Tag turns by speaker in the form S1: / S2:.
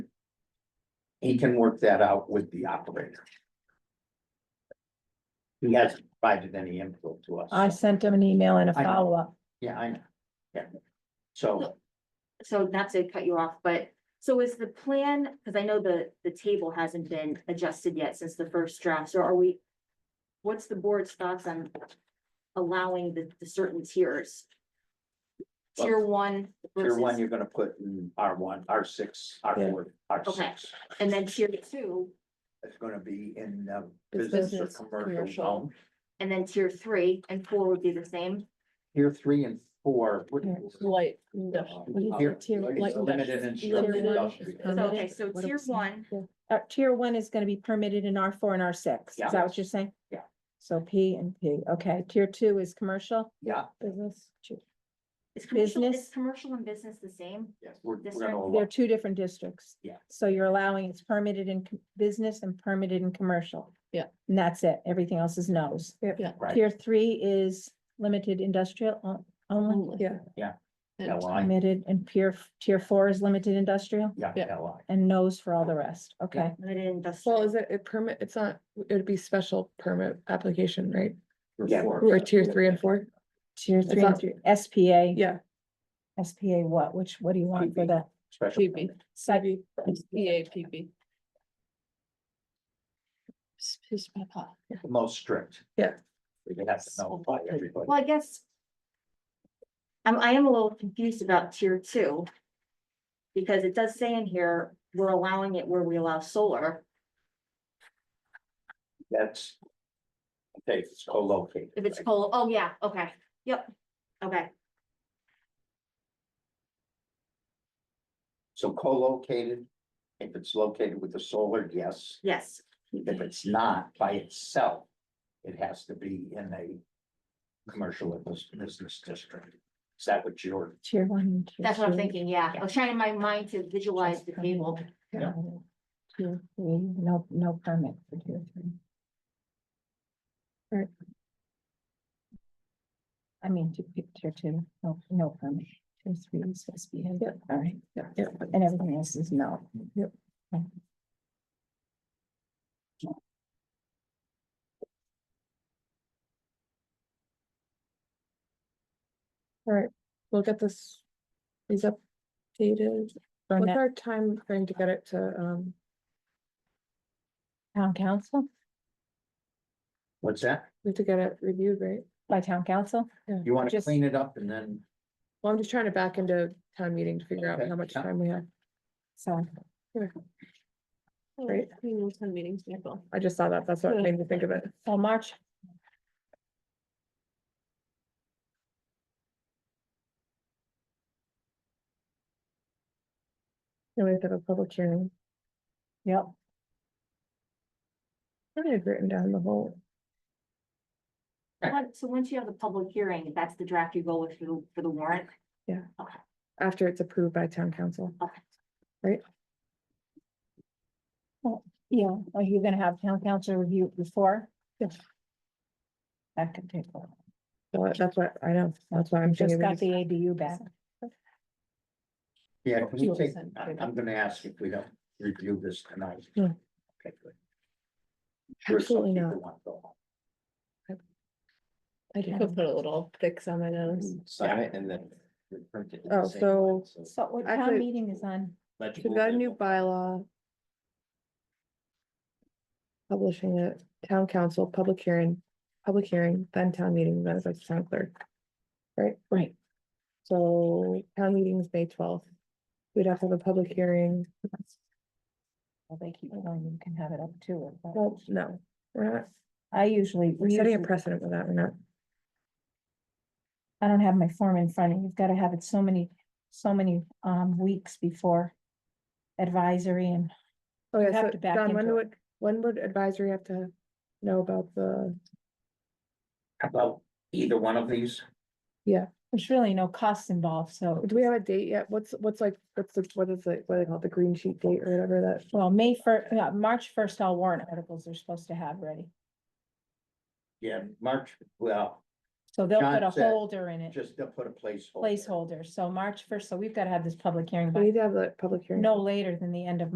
S1: he can work that out with the operator. He hasn't provided any input to us.
S2: I sent him an email and a
S1: I know.
S2: follow-up.
S1: Yeah, I know, yeah. So,
S3: So not to cut you off, but so is the plan, because I know the, the table hasn't been adjusted yet since the first draft, so are we? What's the board's thoughts on allowing the, the certain tiers? Tier one
S1: tier one,
S3: versus,
S1: you're gonna put in R one, R six, R four, R
S3: Okay.
S1: six.
S3: and then tier two,
S1: It's gonna be in the
S2: It's
S1: business or
S2: business,
S1: commercial
S2: commercial.
S1: zone.
S3: and then tier three, and four would be the same.
S1: Tier three and four. would-
S2: Here,
S4: Light
S1: uh,
S4: industrial.
S1: Tier
S2: Tier- like-
S1: it's limited in
S2: Tier
S1: structure,
S2: one.
S1: industrial.
S3: So,
S2: Permitted,
S3: okay, so
S2: what do we
S3: tier
S2: say?
S3: one,
S2: Uh, tier one is gonna be permitted in R four and R six.
S1: Yeah.
S2: Is that what you're saying?
S1: Yeah.
S2: So P and P, okay. Tier two is commercial
S1: Yeah,
S2: business. Two-
S3: is commercial, is
S2: Business.
S3: commercial and business the same?
S1: yes, we're, we're
S3: District.
S1: gonna. allow-
S2: They're two different districts.
S1: Yeah.
S2: So you're allowing it's permitted in com- business and permitted in commercial.
S4: Yeah.
S2: And that's it. Everything else is no's.
S4: Yeah.
S1: Right.
S2: Tier three is limited industrial on- only
S4: only.
S5: Yeah.
S1: Yeah.
S4: And
S1: LI.
S2: permitted and peer, tier four is limited industrial
S1: Yeah,
S4: Yeah.
S1: LI.
S2: and no's for all the rest. Okay.
S3: Limited industrial.
S5: Well, is it a permit? It's not, it'd be special permit application, right?
S1: Yeah.
S5: Or tier three and four?
S2: Tier three, and
S5: not-
S2: tier- SPA.
S5: Yeah.
S2: SPA what? Which, what do you want for
S1: PB.
S2: the
S1: Special.
S4: PB,
S1: permit.
S2: site?
S4: EAPB. Excuse my pop.
S1: The Most strict.
S5: Yeah.
S1: We have to notify everybody.
S3: Well, I guess. I'm, I am a little confused about tier two. Because it does say in here, we're allowing it where we allow solar.
S1: That's. Okay, if it's co-located.
S3: If it's
S1: right?
S3: cold, oh yeah, okay, yep, okay,
S1: So co-located, if it's located with the solar, yes.
S3: yes,
S1: If it's not by itself, it has to be in a commercial or bus- business district. Is that what you're,
S2: Tier one. and tier
S3: that's what I'm
S2: two.
S3: thinking, yeah. I was trying in my mind to visualize the table.
S1: Yeah.
S2: Tier three, no, no permit for tier three. Or- I mean, to pick tier two, no, no permit, tier three is SBA, all right,
S5: Yeah, yeah.
S2: and everything else is no.
S5: Yep.
S2: Okay.
S5: We'll get this, these updated.
S2: For
S5: What's
S2: net
S5: our time frame to get it to, um,
S2: town council,
S1: what's that?
S5: we have to get it reviewed, right?
S2: by town council,
S1: You want to
S2: Just-
S1: clean it up and then,
S5: Well, I'm just trying to back into town meeting to figure out
S1: Okay,
S5: how much
S1: yeah.
S5: time we have,
S2: so.
S5: right?
S4: We know some meetings, Nicole.
S5: I just saw that. That's what
S4: Yeah.
S5: made me think of it.
S2: So March.
S5: And we have to have a public hearing.
S2: Yep.
S5: I had written down the whole,
S3: But- So once you have the public hearing, that's the draft you go with for the, for the warrant.
S5: after it's approved by town council.
S2: Yeah, are you gonna have town council review it before?
S5: Yes.
S2: That could take a while.
S5: So That's what I know. That's why I'm
S2: Just
S5: thinking. we
S2: got the
S5: just-
S2: ADU back.
S1: yeah, can we
S4: Sure.
S1: take, I- I'm gonna ask if we don't review this tonight.
S5: No.
S1: Okay, good. Sure, some
S5: Hmm. Absolutely
S1: people
S5: not.
S1: want to go home.
S4: I just put a little fix on my nose.
S6: sign it and then. we print it in the
S5: Oh,
S6: same
S5: so-
S6: line, it's
S2: So what town
S5: Actually-
S2: meeting is on?
S5: So
S6: legible,
S5: Mm-hmm. We've got a
S6: then
S5: new
S6: we'll-
S5: bylaw. Publishing it, town council, public hearing, public hearing, then town meeting, then it's like town clerk. Right?
S2: Right.
S5: So town meeting's May twelfth. We'd have to have a public hearing.
S2: Well, they keep going, you can have it up to it. but
S5: Well, no, we're not,
S2: I usually,
S5: we're
S2: we
S5: setting a
S2: usually,
S5: precedent with that, we're not.
S2: I don't have my form in front of me. You've gotta have it so many, so many um weeks before advisory and
S5: Oh, yeah,
S2: have
S5: so
S2: to back
S5: John, when
S2: into
S5: would, when would advisory have to know about the,
S1: About either one of these,
S2: there's really no costs involved, so.
S5: do we have a date yet? What's, what's like, what's the, what is it, what do they call it, the green sheet date or whatever that?
S2: Well, May first, yeah, March first, all warrant articles are supposed to have ready.
S1: yeah, March, well,
S2: So they'll put
S1: John
S2: a
S1: said,
S2: holder in it,
S1: just to put a placeholder.
S2: placeholder. So March first, so we've gotta have this public hearing
S5: We
S2: by
S5: need to have the public hearing.
S2: no later than the end of